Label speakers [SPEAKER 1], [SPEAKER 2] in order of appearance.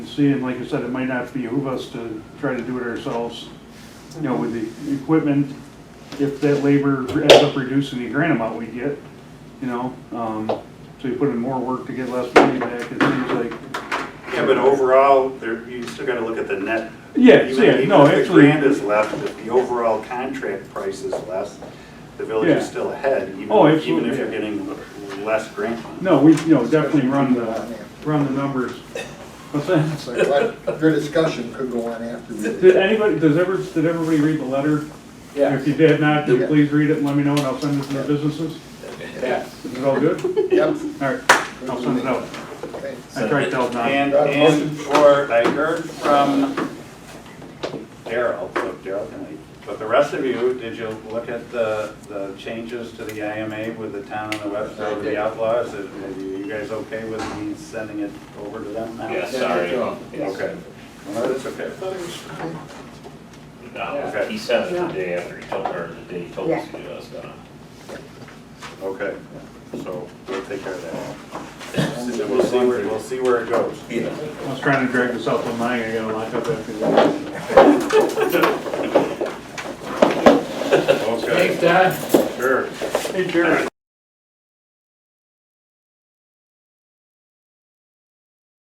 [SPEAKER 1] see, and like I said, it might not behoove us to try to do it ourselves, you know, with the equipment. If that labor ends up reducing the grant amount we get, you know, um, so you put in more work to get less money back, it seems like.
[SPEAKER 2] Yeah, but overall, there, you still gotta look at the net.
[SPEAKER 1] Yeah,
[SPEAKER 2] Even-
[SPEAKER 1] yeah, no,
[SPEAKER 2] Even if the
[SPEAKER 1] actually-
[SPEAKER 2] grant is left, if the overall contract price is less, the village
[SPEAKER 1] Yeah.
[SPEAKER 2] is still ahead, even,
[SPEAKER 1] Oh,
[SPEAKER 2] even
[SPEAKER 1] absolutely,
[SPEAKER 2] if you're
[SPEAKER 1] yeah.
[SPEAKER 2] getting less grant.
[SPEAKER 1] No, we, you know, definitely run the, run the numbers. What's that?
[SPEAKER 3] So, but Your discussion could go on after we.
[SPEAKER 1] Did anybody, does ever, did everybody read the letter? If you did not, then please read it and let me know, and I'll send it to the businesses. Is it all good?
[SPEAKER 3] Yep.
[SPEAKER 1] All right, I'll send it out.
[SPEAKER 3] Okay.
[SPEAKER 1] I tried to help not.
[SPEAKER 2] And, and for, I heard from Daryl, so Daryl can leave, but the rest of you, did you look at the, the changes to the IMA with the town and the website of the outlaws? Is- Are you you guys okay with me sending it over to them now?
[SPEAKER 4] Yeah, sorry.
[SPEAKER 2] Okay. Well, that's okay.
[SPEAKER 4] No, he sent it the day after he told, or the day he told us to do it, I was gonna.
[SPEAKER 2] Okay, so we'll take care of that. And we'll see where, we'll see where it goes.
[SPEAKER 1] I was trying to drag this out till nine, I gotta lock up after that.
[SPEAKER 2] Okay. Thanks, Dad. Sure.
[SPEAKER 1] Hey, Jerry.